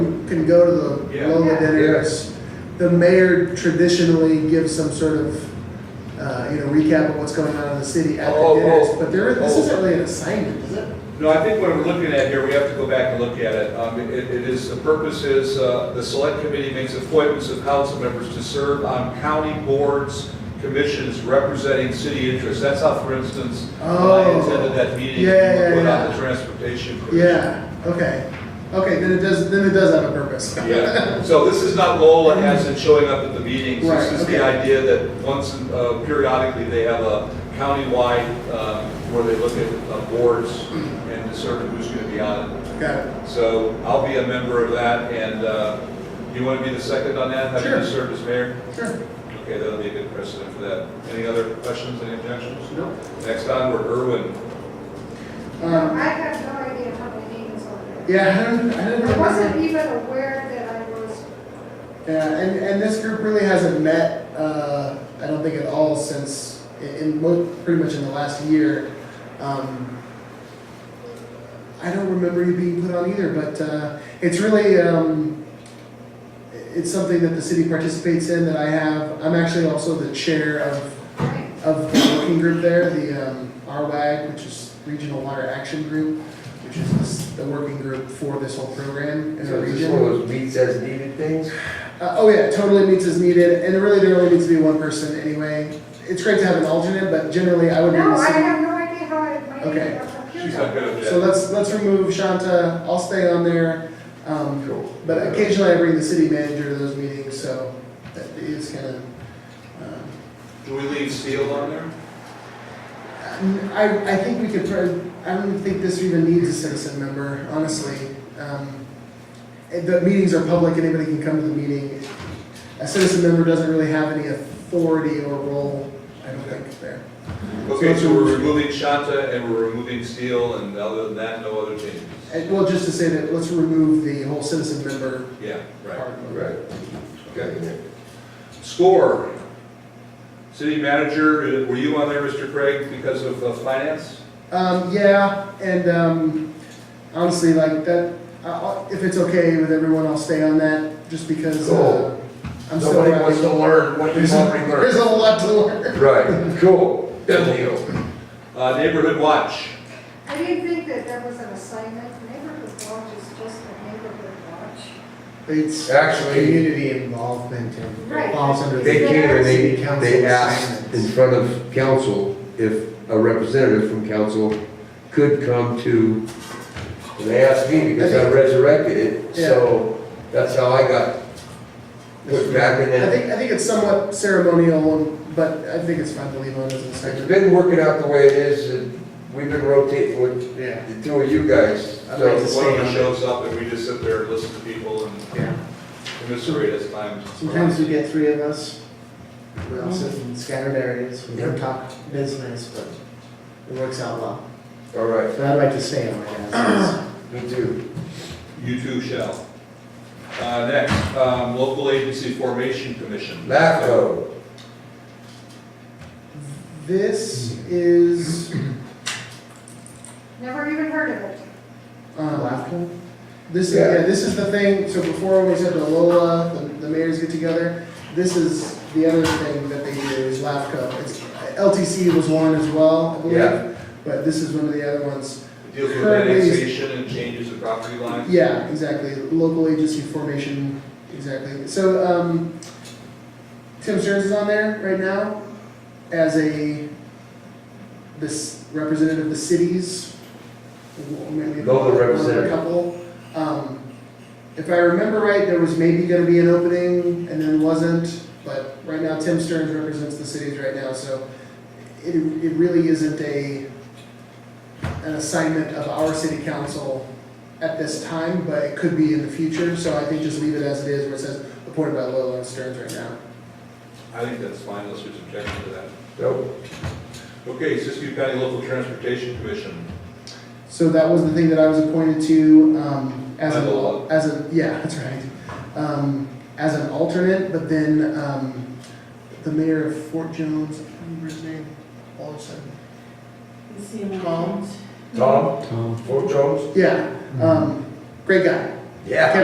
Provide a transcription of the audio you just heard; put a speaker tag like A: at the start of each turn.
A: can go to the
B: Yeah.
A: Lola dinners. The mayor traditionally gives some sort of, uh, you know, recap of what's going on in the city at
B: Oh,
A: the
B: oh,
A: dinners.
B: oh.
A: But there, this
B: Oh.
A: isn't really an assignment, is it?
B: No, I think what we're looking at here, we have to go back and look at it. Um, it, it is, the purpose is, uh, the select committee makes appointments of council members to serve on county boards, commissions representing city interests. That's how, for instance, when I
A: Oh.
B: attended that meeting,
A: Yeah, yeah,
B: put on
A: yeah.
B: the transportation. commission.
A: Yeah, okay. Okay, then it does, then it does have a purpose.
B: Yeah, so this is not Lola as in showing up at the meetings. This
A: Right,
B: is the
A: okay.
B: idea that once, uh, periodically, they have a countywide, uh, where they look at uh, boards
A: Mm-hmm.
B: and determine who's going to be on it.
A: Got it.
B: So I'll be a member of that, and uh, you want to be the second on that? Have you
A: Sure.
B: served as mayor?
A: Sure.
B: Okay, that'll be a good precedent for that. Any other questions, any objections?
A: No.
B: Next onward, Irwin.
A: Um,
C: I have no idea how many meetings are there.
A: Yeah, I don't, I don't
C: I wasn't
A: remember.
C: even aware that I was,
A: Yeah, and, and this group really hasn't met, uh, I don't think at all since, in, in mo- pretty much in the last year. Um, I don't remember you being put on either, but, uh, it's really, um, i- it's something that the city participates in that I have. I'm actually also the chair of
C: right,
A: of the working group there, the um, RWAG, which is Regional Water Action Group, which is this- the working group for this whole program in the
D: So is this one of
A: region.
D: those meets as needed things?
A: Uh, Oh yeah, totally meets as needed, and really there only needs to be one person anyway. It's great to have an alternate, but generally I would be
C: no,
A: the
C: I
A: city.
C: have no idea how I made
A: Oh, Okay.
C: it up
B: She's
C: here.
B: not good at
A: So
B: that.
A: let's, let's remove Shanta, I'll stay on there. um,
D: Cool.
A: But occasionally I bring the city manager to those meetings, so that is kind of, um,
B: Do we leave Steele on there?
A: I, I think we could, try- I don't think this even needs a citizen member, honestly. Um, eh, The meetings are public, anybody can come to the meeting. A citizen member doesn't really have any authority or role, I don't think, there.
B: Okay, so we're removing Shanta and we're removing Steele, and other than that, no other changes?
A: And, Eh, Well, just to say that, let's remove the whole citizen member
B: Yeah, right.
A: part.
D: Right.
B: Okay. Score. City manager, uh, were you on there, Mr. Craig, because of uh, finance?
A: Um, yeah, and, um, honestly, like, that, I- I'll- if it's okay with everyone, I'll stay on that, just because, uh,
D: Cool.
A: I'm still.
D: Nobody wants
A: learning.
D: to learn what you've
A: There's
D: already
A: a- there's
D: learned.
A: a lot to learn.
D: Right, cool. Good deal.
B: Uh, Neighborhood watch.
C: I didn't think that there was an assignment, neighborhood watch is just a neighborhood watch.
A: It's
D: Actually-
A: community involvement and
C: Right.
A: falls under
D: They
A: the.
D: came and they,
A: City council
D: they asked in
A: assignments.
D: front of council if a representative from council could come to, and they asked me because I resurrected it, so that's how I got put back in
A: I
D: that.
A: think, I think it's somewhat ceremonial, and- but I think it's fine to leave on as an
D: It's
A: assignment.
D: been working out the way it is, and we've been rotating with
A: Yeah.
D: the two of you guys,
A: I'd
D: so.
A: like to
B: One of
A: stay on
B: us
A: it.
B: shows up and we just sit there and listen to people and
A: Yeah.
B: commiserate as time.
E: Sometimes we get three of us, we all sit in scattered areas, we don't talk business, but it works out well.
D: All right,
E: But I'd like to stay on it as
D: me too.
B: You too shall. Uh, next, um, local agency formation commission.
D: LAFCO,
A: This is,
C: Never even heard of it.
A: um,
E: Laughter?
A: this, is- yeah, this is the thing, so before we said the Lola, the, the mayors get together, this is the other thing that they do is LAFCO. It's, LTC was one as well, I
D: Yeah.
A: believe, but this is one of the other ones.
B: It Deals with
A: Currently-
B: annexation and changes of property lines.
A: Yeah, exactly, local agency formation, exactly. So, um, Tim Stearns is on there right now as a, this representative of the cities. w- maybe
D: Local
A: one or a
D: representative.
A: Couple. Um, if I remember right, there was maybe gonna be an opening and then wasn't, but right now Tim Stearns represents the cities right now, so it, it really isn't a, an assignment of our city council at this time, but it could be in the future, so I think just leave it as it is, where it says appointed by Loyola and Stearns right now.
B: I think that's fine unless there's objection to that.
D: nope,
B: Okay, Siskiyou County Local Transportation Commission.
A: So that was the thing that I was appointed to, um, as
B: By Loyola.
A: an, as a, yeah, that's right. Um, as an alternate, but then, um, the mayor of Fort Jones, I can't remember his name, all of a sudden.
D: Tom? Tom. Fort Jones?
A: Yeah, um, great guy.
D: Yeah.